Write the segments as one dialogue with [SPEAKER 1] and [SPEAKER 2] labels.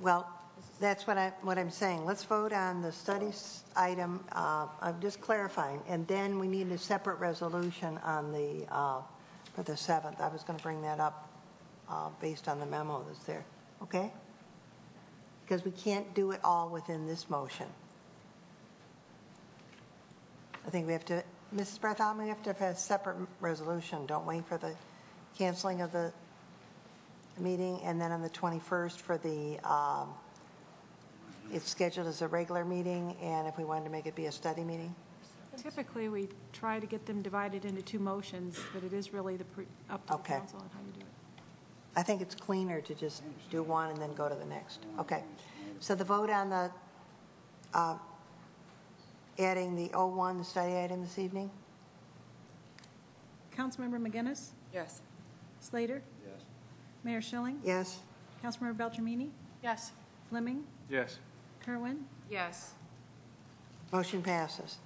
[SPEAKER 1] Well, that's what I, what I'm saying. Let's vote on the studies item, uh, I'm just clarifying, and then we need a separate resolution on the, uh, for the 7th. I was going to bring that up uh, based on the memo that's there, okay? Because we can't do it all within this motion. I think we have to, Mrs. Bartholomew, we have to have a separate resolution, don't wait for the canceling of the meeting, and then on the 21st for the, um, it's scheduled as a regular meeting, and if we wanted to make it be a study meeting?
[SPEAKER 2] Typically, we try to get them divided into two motions, but it is really the, pre- up to the
[SPEAKER 1] Okay.
[SPEAKER 2] council on how you do it.
[SPEAKER 1] I think it's cleaner to just do one and then go to the next. Okay. So the vote on the, uh, adding the 01 study item this evening?
[SPEAKER 2] Councilmember McGinnis?
[SPEAKER 3] Yes.
[SPEAKER 2] Slater?
[SPEAKER 4] Yes.
[SPEAKER 2] Mayor Schilling?
[SPEAKER 1] Yes?
[SPEAKER 2] Councilmember Beltramini?
[SPEAKER 3] Yes.
[SPEAKER 2] Fleming?
[SPEAKER 4] Yes.
[SPEAKER 2] Kerwin?
[SPEAKER 3] Yes.
[SPEAKER 1] Motion passes.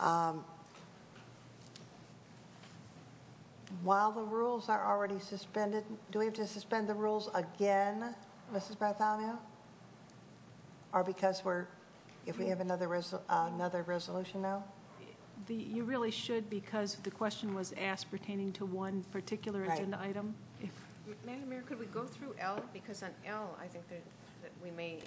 [SPEAKER 1] Um, While the rules are already suspended, do we have to suspend the rules again, Mrs. Bartholomew? Or because we're, if we have another, resol- uh, another resolution now?
[SPEAKER 2] The, you really should, because the question was asked pertaining to one particular
[SPEAKER 1] Right.
[SPEAKER 2] agenda item. If
[SPEAKER 3] Madam Mayor, could we go through L? Because on L, I think that that we may